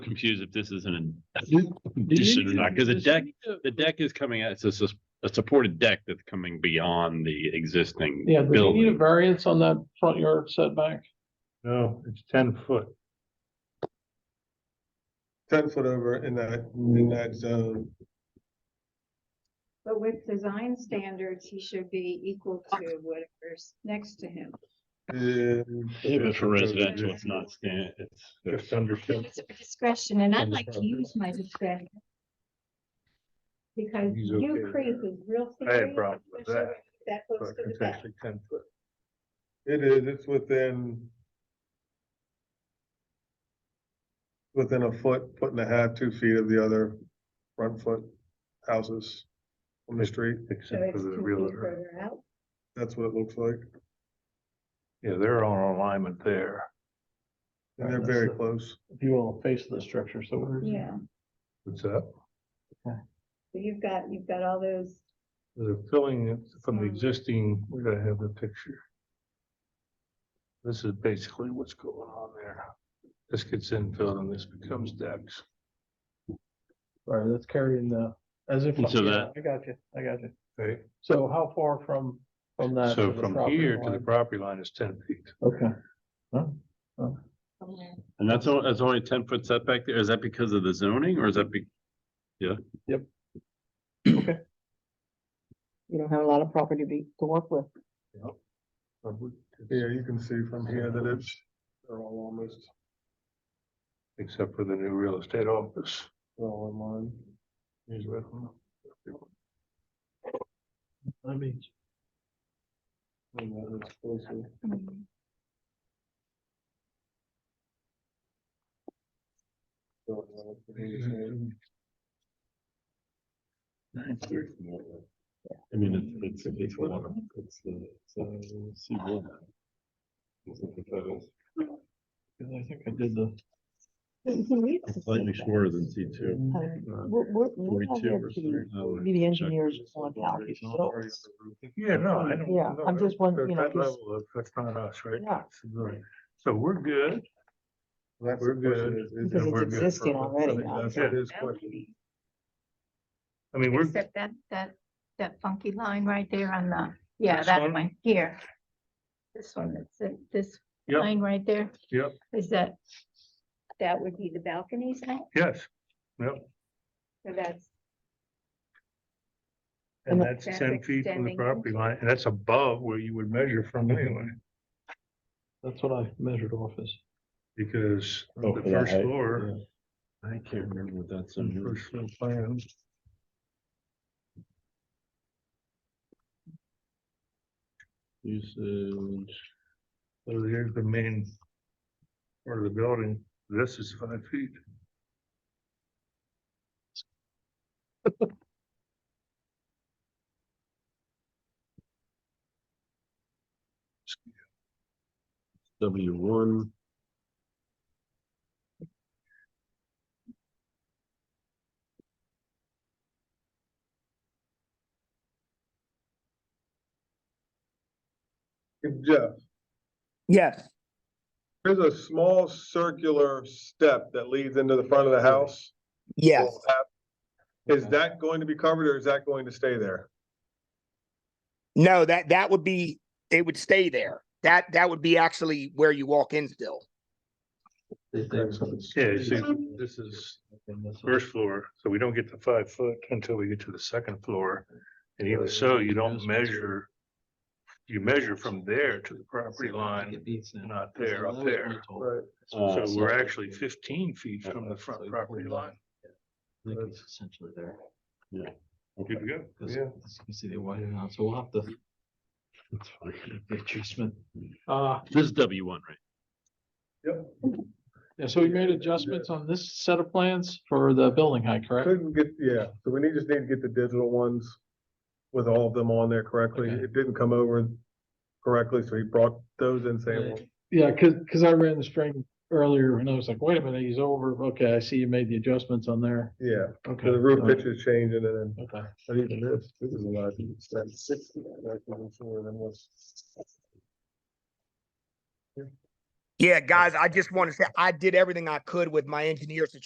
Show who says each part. Speaker 1: confused if this is an
Speaker 2: Did-
Speaker 1: addition or not, because the
Speaker 2: Does
Speaker 1: deck,
Speaker 2: she need to-
Speaker 1: the deck is coming out, it's a, sus- a supported deck that's coming beyond the existing
Speaker 2: Yeah, does he need a
Speaker 1: building.
Speaker 2: variance on that front yard setback?
Speaker 3: No, it's ten foot.
Speaker 4: ten foot over in that, in that zone.
Speaker 5: But with design standards, he should be equal to whatever's next to him.
Speaker 1: If it's for residential,
Speaker 5: Yeah.
Speaker 1: it's not stand, it's.
Speaker 3: Just under ten.
Speaker 5: It's a discretion, and I'd
Speaker 3: Under
Speaker 5: like to
Speaker 3: five.
Speaker 5: use my discretion. Because
Speaker 3: He's okay
Speaker 5: you
Speaker 3: with
Speaker 5: creep is real.
Speaker 3: I had
Speaker 5: serious,
Speaker 3: problems with
Speaker 5: especially
Speaker 3: that,
Speaker 5: if That goes
Speaker 3: but
Speaker 5: to the
Speaker 3: It's
Speaker 5: back.
Speaker 3: actually ten foot.
Speaker 4: It is, it's within. Within a foot, foot and a half, two feet of the other front foot houses on the street.
Speaker 5: So
Speaker 3: Except
Speaker 5: it's
Speaker 3: for
Speaker 5: two
Speaker 3: the
Speaker 5: feet
Speaker 3: real,
Speaker 5: further out.
Speaker 4: That's what it looks like.
Speaker 3: yeah, they're on alignment there.
Speaker 4: And they're very close.
Speaker 2: If you will, face of the structure, so where is it?
Speaker 5: Yeah,
Speaker 3: What's that?
Speaker 5: so you've got, you've got all those,
Speaker 3: They're filling it from the
Speaker 5: Um,
Speaker 3: existing, where do I have the picture? This is basically what's going on there. This gets infilled and this becomes decks.
Speaker 2: Right, that's carrying the, as if.
Speaker 1: And so
Speaker 2: yeah,
Speaker 1: that-
Speaker 2: I got you, I got you.
Speaker 3: Okay,
Speaker 2: So how far from, from that?
Speaker 3: so
Speaker 2: Uh, to the
Speaker 3: from
Speaker 2: property
Speaker 3: here to the
Speaker 2: line?
Speaker 3: property line is ten feet.
Speaker 2: Okay. Huh?
Speaker 1: And that's, on- that's only ten foot setback there, is that because of the zoning, or is that be,
Speaker 6: you don't have a lot of property to, to work with.
Speaker 4: Yeah, you can see from here that it's, they're all almost,
Speaker 3: Except for the new real estate office.
Speaker 4: they're all in line.
Speaker 3: Here's what I'm-
Speaker 2: I mean,
Speaker 4: And that is closer.
Speaker 5: mm.
Speaker 4: So, uh,
Speaker 2: Mm-hmm.
Speaker 4: it's the same.
Speaker 1: I mean, it's, it's, it's one, it's the, it's the C one.
Speaker 2: because I think I did the,
Speaker 1: Slightly shorter than C two.
Speaker 6: Uh, Be the engineers on how he builds.
Speaker 3: Yeah, no, I don't.
Speaker 6: Yeah,
Speaker 3: no,
Speaker 6: I'm
Speaker 3: I
Speaker 6: just
Speaker 3: don't-
Speaker 6: wondering, you
Speaker 3: that
Speaker 6: know, 'cause-
Speaker 3: level of- That's not us, right?
Speaker 6: Yeah.
Speaker 3: It's really- So we're good.
Speaker 4: That's the
Speaker 3: We're
Speaker 4: question,
Speaker 3: good.
Speaker 4: is- is it-
Speaker 6: Because it's
Speaker 4: we're good for-
Speaker 6: existing already,
Speaker 4: That's
Speaker 6: huh?
Speaker 4: what
Speaker 3: Yeah.
Speaker 4: it is question.
Speaker 3: I mean, we're,
Speaker 5: except that, that, that funky line right there on the, yeah,
Speaker 3: This
Speaker 5: that
Speaker 3: one?
Speaker 5: one here. This one, that's, it, this
Speaker 3: Yep.
Speaker 5: line right there.
Speaker 3: Yep.
Speaker 5: Is that, that would be the balconies now,
Speaker 3: yes, yep,
Speaker 5: so that's.
Speaker 3: and
Speaker 6: And
Speaker 3: that's
Speaker 5: that's
Speaker 3: ten feet from the
Speaker 5: extending.
Speaker 3: property line, and that's above where you would measure from anyway.
Speaker 2: that's what I measured off as.
Speaker 3: Because
Speaker 1: Oh,
Speaker 3: the
Speaker 1: for the
Speaker 3: first
Speaker 1: height,
Speaker 3: floor,
Speaker 1: I can't remember what that's
Speaker 3: the
Speaker 1: on.
Speaker 3: first floor plan.
Speaker 1: Usage.
Speaker 3: So here's the main part of the building, this is five feet.
Speaker 1: W one.
Speaker 4: Jeff,
Speaker 6: Yes.
Speaker 4: there's a small circular step that leads into the front of the house. Is that going to be covered or is that going to stay there?
Speaker 7: No, that, that would be, it would stay there. That, that would be actually where you walk in still.
Speaker 3: Yeah, you see, this is first floor, so we don't get to five foot until we get to the second floor. And even so, you don't measure, you measure from there to the property line, not there, up there.
Speaker 4: Right.
Speaker 1: Uh,
Speaker 3: So we're actually fifteen feet from the front property line.
Speaker 8: It's essentially there,
Speaker 3: Good to go.
Speaker 8: because
Speaker 4: Yeah.
Speaker 8: as you can see, they widened out, so we'll have to get treatment.
Speaker 2: Uh,
Speaker 1: This is W one, right?
Speaker 4: Yep,
Speaker 2: yeah, so we made adjustments on this set of plans for the building height, correct?
Speaker 4: couldn't get, yeah, so we need, just need to get the digital ones with all of them on there correctly.
Speaker 2: Okay.
Speaker 4: It didn't come over correctly, so he brought those in saying, well,
Speaker 2: Yeah, cause, 'cause I ran the string earlier and I was like, wait a minute, he's over. Okay, I see you made the adjustments on there.
Speaker 4: yeah,
Speaker 2: Okay.
Speaker 4: the roof
Speaker 2: all right,
Speaker 4: pitch is changing and then,
Speaker 2: Okay.
Speaker 4: and even this, this is a lot, that's sixty, that's even shorter than what's.
Speaker 7: Yeah, guys, I just want to say, I did everything I could with my engineers to